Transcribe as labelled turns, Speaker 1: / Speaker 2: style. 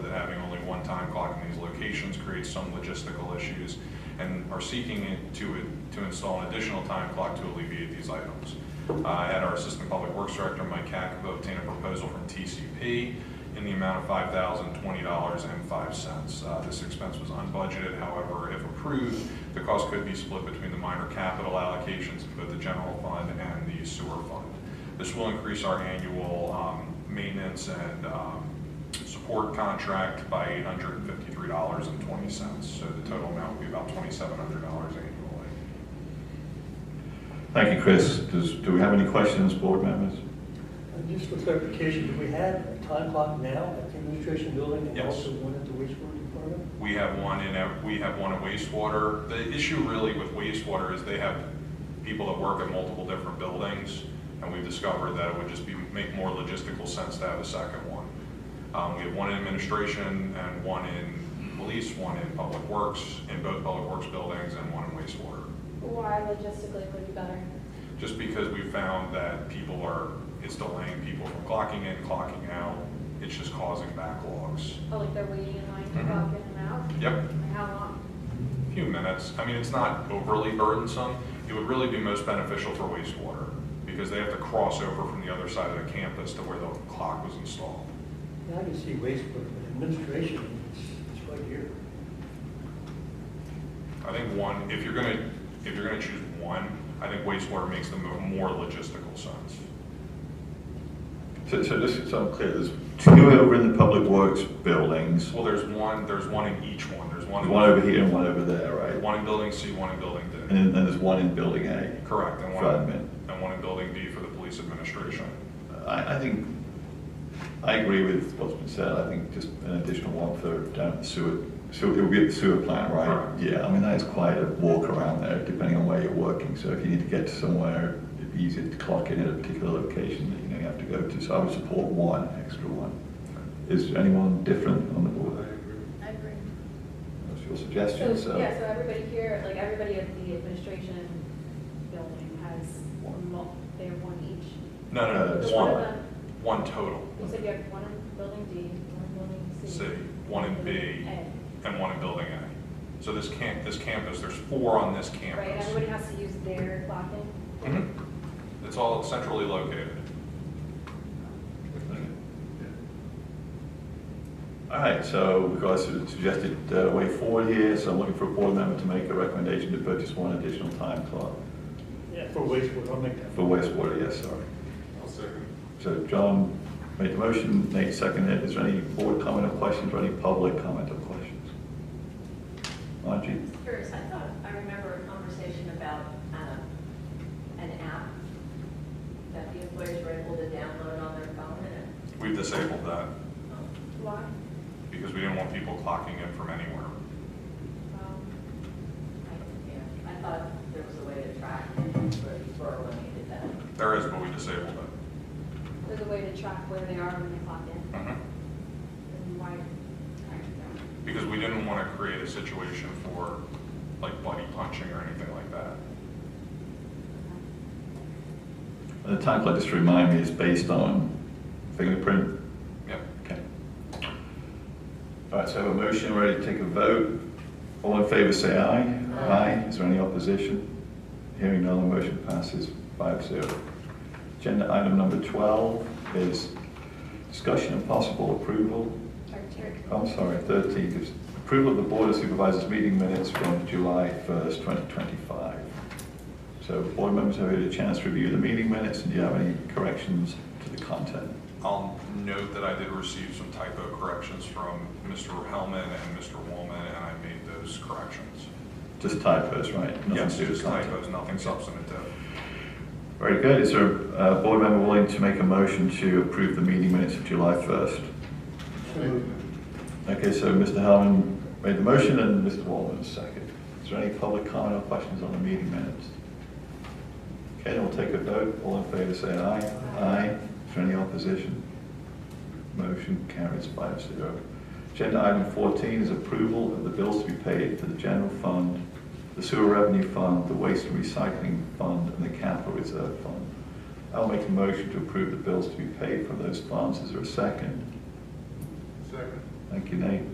Speaker 1: one time clock in these locations creates some logistical issues and are seeking it to, to install an additional time clock to alleviate these items. Uh, I had our Assistant Public Works Director, Mike Kakavo, obtain a proposal from TCP in the amount of five thousand twenty dollars and five cents. Uh, This expense was unbudgeted, however, if approved, the cost could be split between the minor capital allocations in both the general fund and the sewer fund. This will increase our annual um, maintenance and um, support contract by eight hundred and fifty-three dollars and twenty cents. So the total amount would be about twenty-seven hundred dollars annually.
Speaker 2: Thank you, Chris. Does, do we have any questions, board members?
Speaker 3: And Just for clarification, do we have a time clock now at the administration building and
Speaker 1: Yes.
Speaker 3: also one at the wastewater department?
Speaker 1: We have one in, ev- we have one in wastewater. The issue really with wastewater is they have people that work at multiple different buildings, and we've discovered that it would just be, make more logistical sense to have a second one. Um, we have one in administration and one in police, one in public works, in both public works buildings, and one in wastewater.
Speaker 4: Why logistically would be better?
Speaker 1: Just because we found that people are, it's delaying people from clocking in, clocking out, it's just causing backlogs.
Speaker 4: Oh, like they're waiting in line to
Speaker 1: Mhm.
Speaker 4: walk in and out?
Speaker 1: Yep.
Speaker 4: Like how long?
Speaker 1: few minutes. I mean, it's not overly burdensome. It would really be most beneficial for wastewater because they have to cross over from the other side of the campus to where the clock was installed.
Speaker 3: Yeah, I can see wastewater, but administration, it's- it's right here.
Speaker 1: I think one, if you're gonna, if you're gonna choose one, I think wastewater makes the mo- more logistical sense.
Speaker 2: So, so this, so I'm clear, there's two over in the public works buildings,
Speaker 1: Well, there's one, there's one in each one. There's one. in-
Speaker 2: one over here and one over there, right?
Speaker 1: One in building C, one in building D.
Speaker 2: And then there's one in building A.
Speaker 1: Correct, and
Speaker 2: For admin.
Speaker 1: one, and one in building D for the police administration.
Speaker 2: I, I think, I agree with what's been said, I think just an additional one for down the sewer, sewer, it'll be at the sewer plant, right?
Speaker 1: Correct.
Speaker 2: Yeah, I mean, that is quite a walk around there, depending on where you're working, so if you need to get to somewhere, it'd be easier to clock in at a particular location that you know you have to go to, so I would support one, extra one. Is anyone different on the board?
Speaker 4: I agree.
Speaker 2: That's your
Speaker 4: So,
Speaker 2: suggestion, so.
Speaker 4: Oh, yeah, so everybody here, like everybody at the administration building has,
Speaker 2: One.
Speaker 4: mul- they have one each.
Speaker 1: No, no,
Speaker 2: Uh,
Speaker 1: no,
Speaker 4: Does
Speaker 2: it's
Speaker 4: one of
Speaker 1: one,
Speaker 4: them,
Speaker 1: one total,
Speaker 4: you said you have one in building D, one in building C.
Speaker 1: C, one in B,
Speaker 4: A.
Speaker 1: and one in building A. So this camp, this campus, there's four on this
Speaker 4: Right,
Speaker 1: campus.
Speaker 4: everybody has to use their clock in.
Speaker 1: Mhm. It's all centrally located.
Speaker 2: All right, so we've got a suggested uh, way forward here, so I'm looking for a board member to make a recommendation to purchase one additional time clock
Speaker 3: Yeah. For wastewater, I'll make that.
Speaker 2: for wastewater, yes, sorry.
Speaker 1: I'll second.
Speaker 2: So John made the motion, Nate seconded it. Is there any board comment or questions, or any public comment or questions? Margie?
Speaker 5: Curious, I thought, I remember a conversation about um, an app that the employees were able to download on their phone and,
Speaker 1: We've disabled that
Speaker 5: um,
Speaker 4: Why?
Speaker 1: because we didn't want people clocking in from anywhere.
Speaker 4: Um,
Speaker 5: I, yeah, I thought there was a way to track for, for when you did that.
Speaker 1: There is, but we disabled it.
Speaker 4: There's a way to track where they are when they clock in,
Speaker 1: Mhm.
Speaker 4: and why. I
Speaker 1: Because we didn't want to create a situation for like buddy punching or anything like that.
Speaker 4: don't know.
Speaker 2: And The time clock, just to remind me, is based on fingerprint?
Speaker 1: Yep.
Speaker 2: Okay. All right, so I have a motion, ready to take a vote. All in favor, say aye.
Speaker 5: Aye.
Speaker 2: Is there any opposition? Hearing none, the motion passes five zero. Agenda item number 12 is discussion and possible approval, I'm sorry, 13, is approval of the Board of Supervisors meeting minutes from July 1st, 2025. So board members have had a chance to review the meeting minutes, and do you have any corrections to the content?
Speaker 1: I'll note that I did receive some typo corrections from Mr. Hellman and Mr. Woolman, and I made those corrections.
Speaker 2: Just typos, right? Nothing
Speaker 1: Yes,
Speaker 2: to do with
Speaker 1: just
Speaker 2: content.
Speaker 1: typos, nothing substantive.
Speaker 2: Very good. Is there a uh, board member willing to make a motion to approve the meeting minutes of July 1st?
Speaker 3: So moved.
Speaker 2: Okay, so Mr. Hellman made the motion and Mr. Wallman second. Is there any public comment or questions on the meeting minutes? Okay, then we'll take a vote. All in favor, say aye. Aye. Is there any opposition? Motion carries five zero. Agenda item 14 is approval of the bills to be paid for the general fund, the sewer revenue fund, the waste and recycling fund, and the capital reserve fund. I'll make a motion to approve the bills to be paid for those funds. Is there a second?
Speaker 6: Second.
Speaker 2: Thank you, Nate.